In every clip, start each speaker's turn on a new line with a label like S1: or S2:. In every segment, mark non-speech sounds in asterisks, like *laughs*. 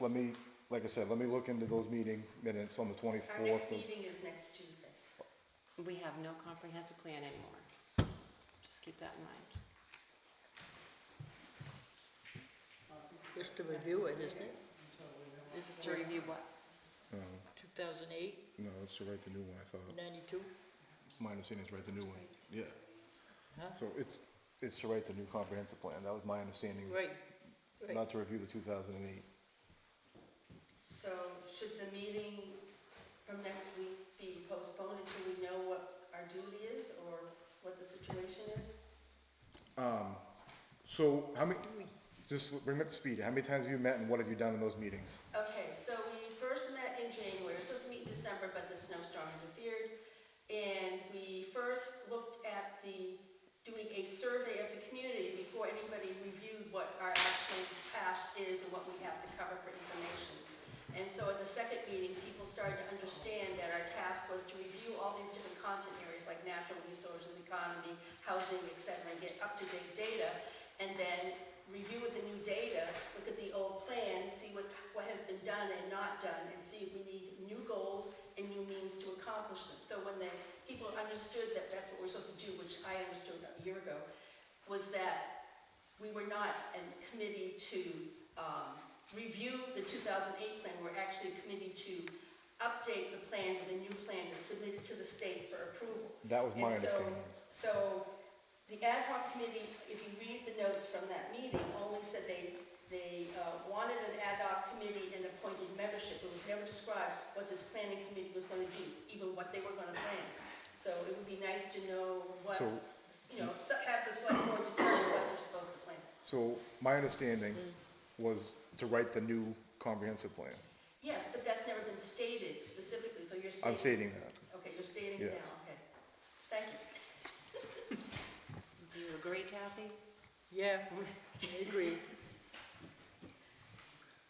S1: let me, like I said, let me look into those meeting minutes on the
S2: Our next
S1: twenty-fourth.
S2: meeting is next Tuesday.
S3: We have no comprehensive plan anymore. Just keep that in mind.
S4: It's to review it, isn't it?
S3: Is it to review what?
S1: No,
S4: 2008,
S1: uh, no, it's to write the new one, I thought.
S4: 92?
S1: My understanding is write the new one, yeah.
S4: Huh?
S1: So it's, it's to write the new comprehensive plan, that was my understanding,
S4: Right, right.
S1: not to review the two thousand and eight.
S2: So should the meeting from next week be postponed until we know what our duty is or what the situation is?
S1: Um, so how many, just bring me up to speed, how many times have you met and what have you done in those meetings?
S2: Okay, so we first met in January, we were supposed to meet in December, but the snowstorm interfered. And we first looked at the, doing a survey of the community before anybody reviewed what our actual task is and what we have to cover for information. And so at the second meeting, people started to understand that our task was to review all these different content areas like natural resources, economy, housing, et cetera, and get up-to-date data. And then review with the new data, look at the old plan, see what, what has been done and not done, and see if we need new goals and new means to accomplish them. So when the people understood that that's what we're supposed to do, which I understood a year ago, was that we were not a committee to um, review the 2008 plan, we're actually a committee to update the plan with a new plan to submit it to the state for approval.
S1: That was my
S4: um,
S2: And so-
S1: understanding.
S2: So the ad hoc committee, if you read the notes from that meeting, only said they, they uh, wanted an ad hoc committee and appointed membership. It was never described what this planning committee was going to do, even what they were going to plan. So it would be nice to know what,
S1: So-
S2: you know, so- have the select board determine what they're supposed to plan.
S1: So my understanding
S4: Mm.
S1: was to write the new comprehensive plan.
S2: Yes, but that's never been stated specifically, so you're stating.
S1: I'm stating that.
S2: Okay, you're stating it
S1: Yes.
S2: now, okay. Thank you.
S3: Do you agree, Kathy?
S4: Yeah, *laughs* I agree.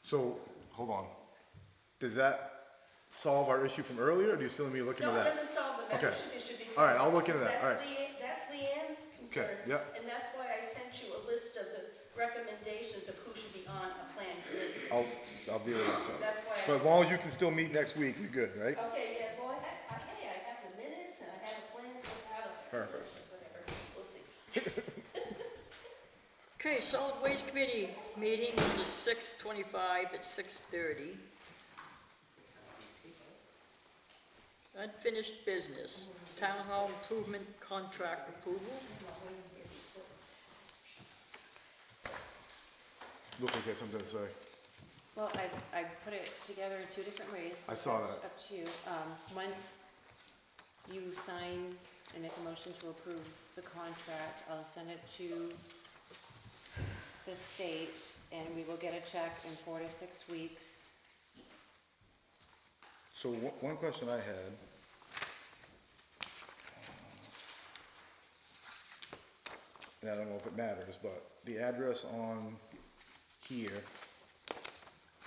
S1: So, hold on. Does that solve our issue from earlier, or do you still need me to look into
S2: No, it
S1: that?
S2: doesn't solve the
S1: Okay.
S2: membership issue because.
S1: All right, I'll look into that. All
S2: That's Leanne, that's Leanne's concern.
S1: yep.
S2: And that's why I sent you a list of the recommendations of who should be on a plan committee.
S1: I'll, I'll deal with that. some.
S2: That's why I-
S1: But as long as you can still meet next week, you're good, right?
S2: Okay, yeah, boy, I, I, hey, I have the minutes and I have a plan that's out of there.
S1: Perfect.
S2: Whatever, we'll see.
S4: Okay, solid waste committee meeting is six twenty-five at six thirty. Unfinished business, town hall improvement contract approval.
S1: Look like you have something to say.
S3: Well, I, I put it together in two different ways. so
S1: I saw
S3: it's
S1: that.
S3: Up to you. Um, once you sign and make a motion to approve the contract, I'll send it to the state and we will get a check in four to six weeks.
S1: So one, one question I had. And I don't know if it matters, but the address on here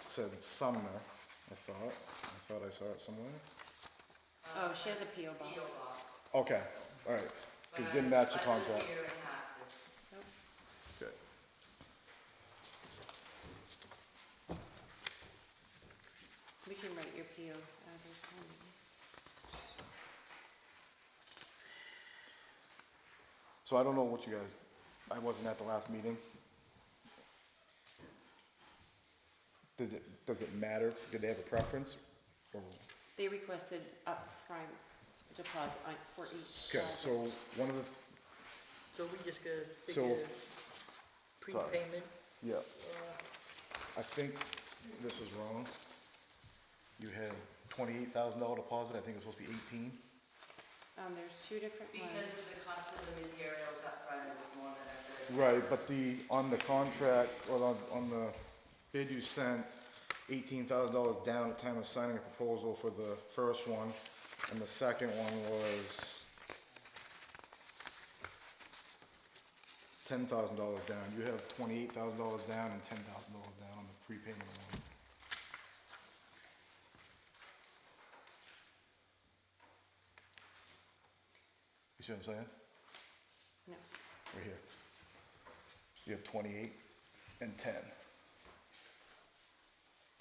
S1: said Sumner, I thought. I thought I saw it somewhere.
S3: Oh, she has a PO box.
S1: Okay, all right. 'Cause It didn't match the contract.
S3: Nope.
S1: Good.
S3: We can write your PO address on.
S1: So I don't know what you guys, I wasn't at the last meeting. Did it, does it matter? Did they have a preference? Or,
S3: They requested upfront deposit on, for each.
S1: okay,
S3: project.
S1: so one of the,
S4: So we just gotta
S1: So-
S4: figure
S1: sorry.
S4: prepayment.
S1: yeah,
S4: uh,
S1: I think this is wrong. You had twenty-eight thousand dollar deposit, I think it was supposed to be eighteen.
S3: Um, there's two different
S2: Because
S3: ones.
S2: of the cost of the materials upfront, it was more than I could.
S1: Right, but the, on the contract, or on, on the bid you sent, eighteen thousand dollars down at time of signing a proposal for the first one, and the second one was ten thousand dollars down, you have twenty-eight thousand dollars down and ten thousand dollars down on the prepayment one. You see what I'm saying?
S3: No.
S1: Right here. You have twenty-eight and ten.